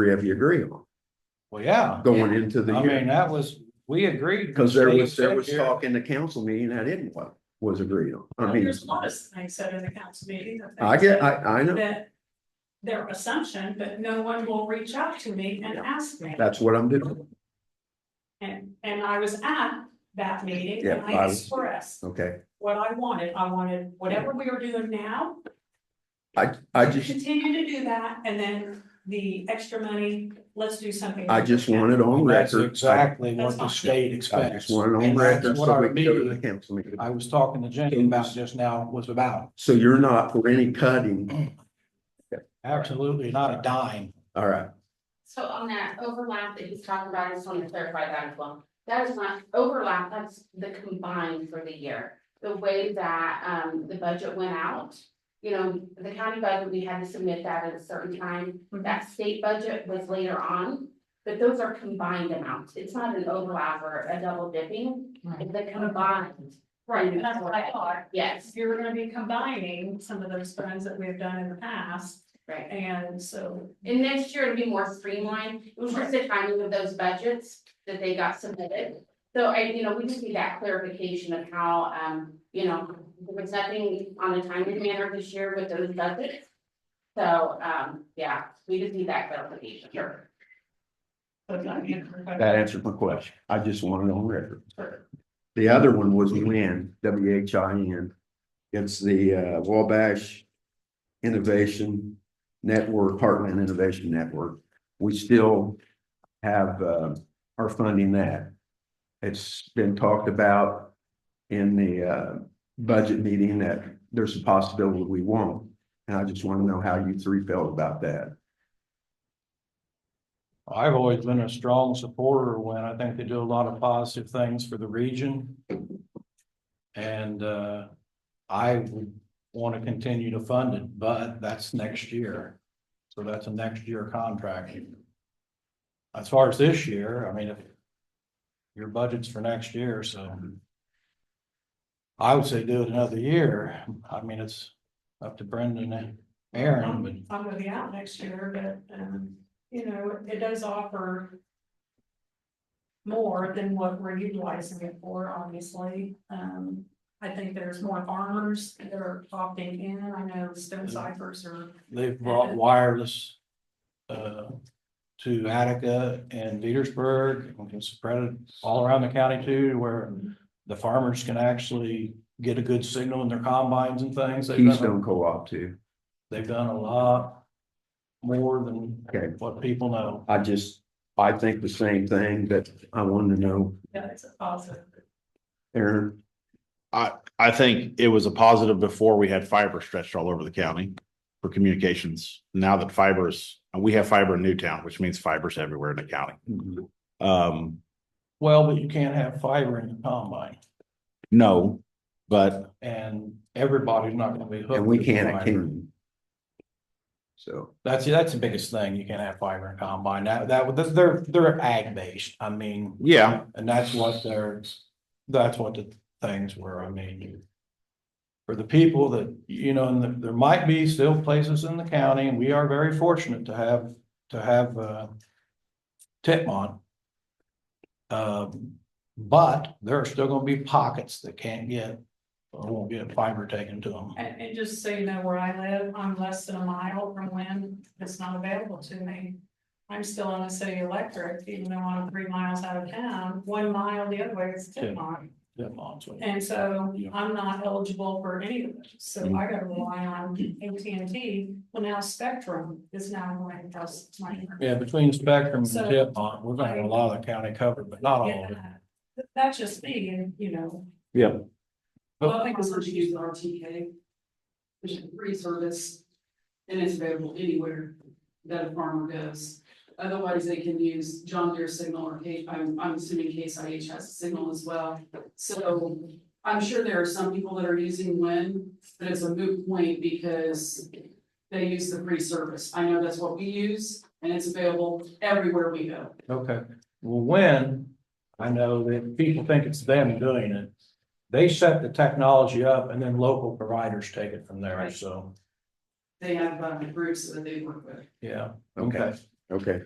three of you agree on Well, yeah, going into the I mean, year. that was, we agreed. Because there was, Steve there said was here- talk in the council meeting that didn't, wa- was agreed on. I mean, There's a lot of things said in the council meeting. that they I get, said I, I know. That their assumption, but no one will reach out to me and ask me. That's what I'm doing. And, and I was at that meeting Yeah, and I I was- expressed Okay. what I wanted. I wanted whatever we are doing now. I, I to just, Continue to do that and then the extra money, let's do something. I just want it on That's record. I exactly what the That's state I expects. just want it on And that's record What so our we can go to the meeting, council meeting. I was talking to Jenny about just now was about, So you're not for any cutting. absolutely not a dime. All right. So on that overlap that he's talking about, I just want to clarify that as well. That is not overlap, that's the combined for the year. The way that um the budget went out, you know, the county budget, we had to submit that at a certain time. That state budget was later on, but those are combined amounts. It's not an overlap or a double dipping. It's the combined. Right, and that's what I thought. Yes, You're gonna be combining some of those funds that we've done in the past, right. and so And next year it'll be more streamlined, it was just the timing of those budgets that they got submitted. So I, you know, we just need that clarification of how, um, you know, there was nothing on a timely manner this year with those budgets. So, um, yeah, we just need that clarification. Sure. but not yet. That answered my question. I just want it on record. The other one was WIN, W H I N. It's the uh, Wabash Innovation Network, Heartland Innovation Network. We still have, uh, are funding that. It's been talked about in the, uh, budget meeting that there's a possibility we won't. And I just want to know how you three felt about that. I've always been a strong supporter when I think they do a lot of positive things for the region. And uh, I would want to continue to fund it, but that's next year. So that's a next year contract. As far as this year, I mean, if your budget's for next year, so I would say do it another year. I mean, it's up to Brendan and Aaron, but I'm Um, I'm gonna be out next year, but, um, you know, it does offer. More than what we're utilizing it for, obviously, um, I think there's more farmers that are opting in, I know stone ciphers are. They've brought wireless uh to Attica and Petersburg, and can spread it all around the county too, where the farmers can actually get a good signal in their combines and things. They've done, Keystone Co-op too. they've done a lot more than Okay. what people know. I just, I think the same thing, but I wanted to know, Yeah, it's a positive. Aaron, I think it was a positive before we had fiber stretched all over the county for communications. Now that fibers, we have fiber in Newtown, which means fibers everywhere in the county. Um, Well, but you can't have fiber in the combine, no, but and everybody's not gonna be hooked. and we to can't at fiber. Kingman. So, That's, that's the biggest thing. You can't have fiber in combine. That, that, they're, they're ag based. I mean. yeah, And that's what they're, that's what the things were, I mean. For the people that, you know, and there- there might be still places in the county, and we are very fortunate to have, to have, uh. Titmon. Um, but there are still gonna be pockets that can't get, or won't get fiber taken to them. And, and just so you know where I live, I'm less than a mile from when it's not available to me. I'm still on the city electric, even though I'm three miles out of town, one mile the other way is ten miles. Titmon's. And so Yeah. I'm not eligible for any of those, so I gotta rely on AT&T, well now Spectrum is now going to cost money. Yeah, between Spectrum and So- Titmon, we're gonna have a lot of the county covered, but not all of it. Yeah. That's just me, and you know. Yeah. Well, I think it's what you use with RTK. Which is a free service. And it's available anywhere that a farmer goes. Otherwise, they can use John Deere signal or K, I'm, I'm assuming Case IH has a signal as well. So I'm sure there are some people that are using Win, but it's a moot point because they use the free service. I know that's what we use and it's available everywhere we go. Okay, well, when, I know that people think it's them doing it. They set the technology up and then local providers take it from there, so, They have uh, groups that they work with. yeah. okay, Okay.